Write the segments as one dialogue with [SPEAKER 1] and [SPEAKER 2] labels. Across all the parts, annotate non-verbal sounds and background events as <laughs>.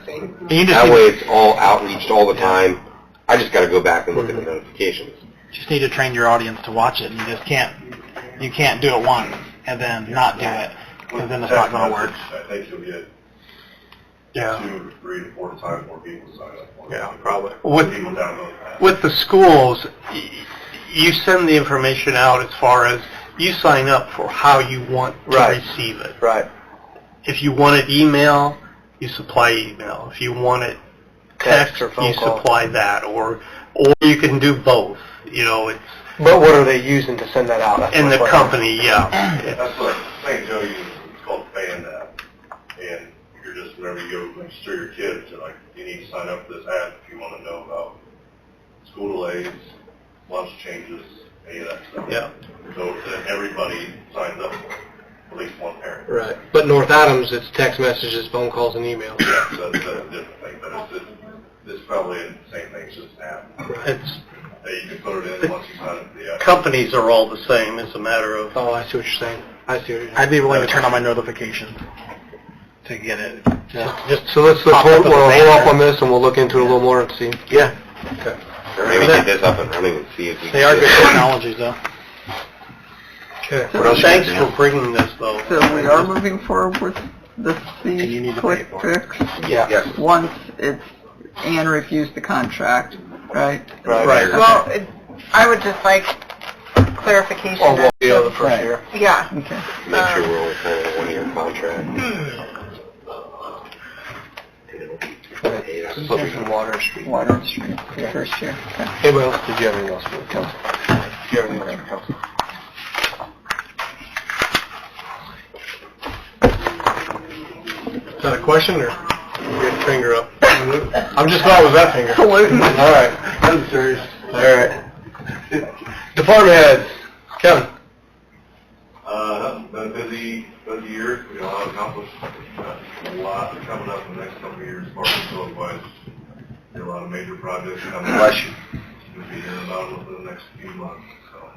[SPEAKER 1] thing.
[SPEAKER 2] And you just
[SPEAKER 1] That
[SPEAKER 2] need-
[SPEAKER 1] way it's all outreached all the
[SPEAKER 2] Yeah.
[SPEAKER 1] time. I just gotta go back and look at
[SPEAKER 2] Mm-hmm.
[SPEAKER 1] the notifications.
[SPEAKER 2] just need to train your audience to watch it. You just can't you can't do it once and then not do it because then it's not going to work.
[SPEAKER 3] I think you'll get two, three, to four times more people sign up. for it.
[SPEAKER 4] Yeah, probably.
[SPEAKER 3] More
[SPEAKER 4] With,
[SPEAKER 3] People download that.
[SPEAKER 4] with the schools, y- you send the information out as far as you sign up for how you want to
[SPEAKER 5] Right.
[SPEAKER 4] receive it.
[SPEAKER 5] Right.
[SPEAKER 4] If you want it email, you supply email. If you want it text,
[SPEAKER 5] Text or phone
[SPEAKER 4] you
[SPEAKER 5] call.
[SPEAKER 4] supply that, or or you can do both. You know, it's
[SPEAKER 5] But what are they using to send that out? That's
[SPEAKER 4] in
[SPEAKER 5] my
[SPEAKER 4] the
[SPEAKER 5] question.
[SPEAKER 4] company, yeah.
[SPEAKER 5] <clears throat>
[SPEAKER 3] That's what St. Joe uses, it's called Fan App. And you're just, whenever you go register your kids, you're like, you need to sign up for this app if you want to know about school delays, lunch changes, any of that stuff.
[SPEAKER 4] Yeah.
[SPEAKER 3] So that everybody signs up, at least one parent.
[SPEAKER 5] Right. But North Adams, it's text messages, phone calls, and email.
[SPEAKER 3] Yeah, so that's a different thing, but it's, just- it's probably the same thing, it's just an app.
[SPEAKER 4] It's
[SPEAKER 3] That you can put it in once you sign up for the app.
[SPEAKER 4] companies are all the same. It's a matter of
[SPEAKER 5] Oh, I see what you're saying. I see what you're saying.
[SPEAKER 2] I'd be willing to turn on my notification to get it.
[SPEAKER 5] Yeah.
[SPEAKER 2] Just, just
[SPEAKER 5] So let's, let's
[SPEAKER 2] Pop up
[SPEAKER 5] hold,
[SPEAKER 2] with a
[SPEAKER 5] we'll hold
[SPEAKER 2] banner.
[SPEAKER 5] off on this and we'll look into it a little more and see.
[SPEAKER 2] yeah,
[SPEAKER 1] Or maybe get this up and running and see if we
[SPEAKER 2] they are
[SPEAKER 1] can
[SPEAKER 2] good
[SPEAKER 1] get
[SPEAKER 2] technologies though.
[SPEAKER 5] Okay.
[SPEAKER 1] What else you
[SPEAKER 4] Thanks
[SPEAKER 1] got,
[SPEAKER 4] for
[SPEAKER 1] Dan?
[SPEAKER 4] bringing this though.
[SPEAKER 6] So we are moving forward with the
[SPEAKER 2] And you need
[SPEAKER 6] fee
[SPEAKER 2] to
[SPEAKER 6] quick
[SPEAKER 2] pay for
[SPEAKER 6] fix
[SPEAKER 5] Yeah.
[SPEAKER 1] Yes.
[SPEAKER 6] once it's, Anne refused the contract, right?
[SPEAKER 5] Right.
[SPEAKER 1] Right.
[SPEAKER 7] Well, it- I would just like clarification.
[SPEAKER 5] Or Oh, we'll
[SPEAKER 7] that-
[SPEAKER 5] be on the first
[SPEAKER 6] Right.
[SPEAKER 5] year.
[SPEAKER 7] Yeah.
[SPEAKER 6] Okay.
[SPEAKER 1] Make sure we're only signing a one-year contract.
[SPEAKER 2] Hmm.
[SPEAKER 1] Hey, that's what we-
[SPEAKER 5] Water Street.
[SPEAKER 6] Water and Street, the
[SPEAKER 5] <laughs>
[SPEAKER 6] first year. Okay.
[SPEAKER 5] Anybody else, did you have anything else for the council? Do you have anything else for council? Is that a question or you got your finger up? I'm just not with that finger.
[SPEAKER 6] Pollutant.
[SPEAKER 5] All right. I'm serious. All right. Department heads. Kevin.
[SPEAKER 3] Uh, been a busy, busy year, we got a lot accomplished, a lot coming up in the next couple of years, as far as facility wise. There are a lot of major projects coming up.
[SPEAKER 1] Bless you.
[SPEAKER 3] We'll be hearing about them within the next few months, so.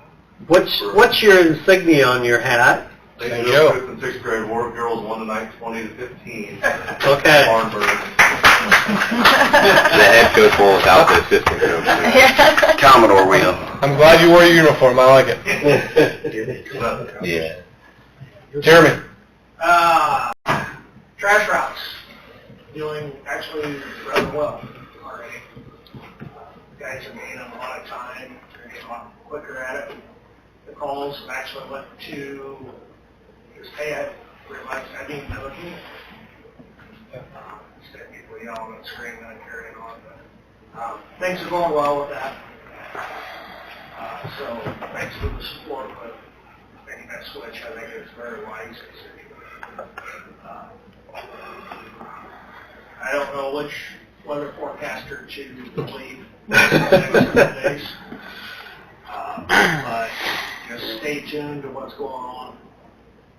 [SPEAKER 4] What's what's your insignia on your hat?
[SPEAKER 3] Thank
[SPEAKER 5] you.
[SPEAKER 3] Fifth and sixth grade war girls, one tonight, twenty to fifteen.
[SPEAKER 4] Okay.
[SPEAKER 6] <laughs>
[SPEAKER 1] The head coach will without the
[SPEAKER 5] <laughs>
[SPEAKER 1] assistant coach. Commodore wheel.
[SPEAKER 5] I'm glad you wore your uniform. I like it.
[SPEAKER 3] Harvard.
[SPEAKER 1] Yeah.
[SPEAKER 5] <laughs> Jeremy.
[SPEAKER 8] Uh, trash routes, doing actually rather well already. Guys are getting a lot of time, they're getting a lot quicker at it. The calls have actually went to, this pay I realized I didn't know it. Uh, Instead of people yelling and screaming and carrying on, but, um, things are going well with that. Uh, so, thanks for the support, but making that switch, I think it's very wise. Uh, I don't know which weather forecaster to believe in the next couple days. Uh, But just stay tuned to what's going on.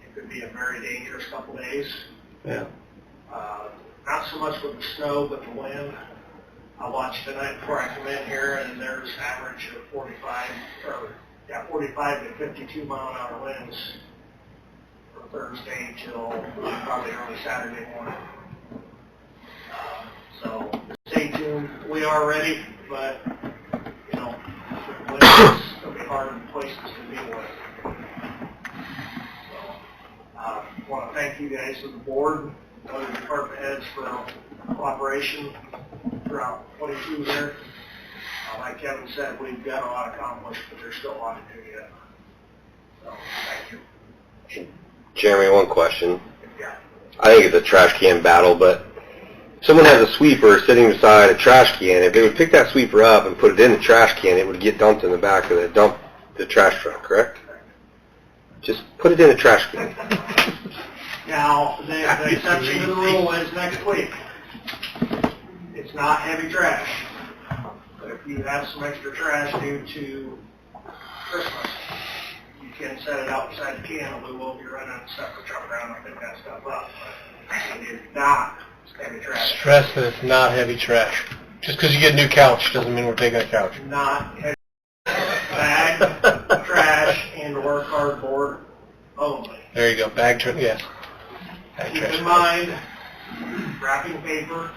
[SPEAKER 8] It could be a very dangerous couple days.
[SPEAKER 4] Yeah.
[SPEAKER 8] Uh, Not so much with the snow, but the wind. I watched tonight before I come in here, and there's average of 45, or, yeah, 45 to 52 mile an hour winds from Thursday till probably early Saturday morning. Uh, So stay tuned. We are ready, but, you know, it's going to be hard places to be with. So, I want to thank you guys and the board, other department heads for cooperation throughout 22 here. Uh, Like Kevin said, we've got a lot accomplished, but there's still a lot to do yet. So, thank you.
[SPEAKER 1] Jeremy, one question.
[SPEAKER 8] Yeah.
[SPEAKER 1] I think it's a trash can battle, but if someone has a sweeper sitting beside a trash can. If they would pick that sweeper up and put it in the trash can, it would get dumped in the back of the dump, the trash truck, correct? Just put it in a trash can.
[SPEAKER 8] Now, the, the exception to the rule is next week. It's not heavy trash. But if you have some extra trash due to Christmas, you can set it outside the can, and we will be running a separate truck around and pick that stuff up. But It is not heavy trash,
[SPEAKER 5] Stress that it's not heavy trash. Just because you get a new couch doesn't mean we're taking a couch.
[SPEAKER 8] not heavy bag, trash, and/or cardboard only.
[SPEAKER 5] There you go. Bag trash. Yes. Bag
[SPEAKER 8] Keep
[SPEAKER 5] trash.
[SPEAKER 8] in mind, wrapping paper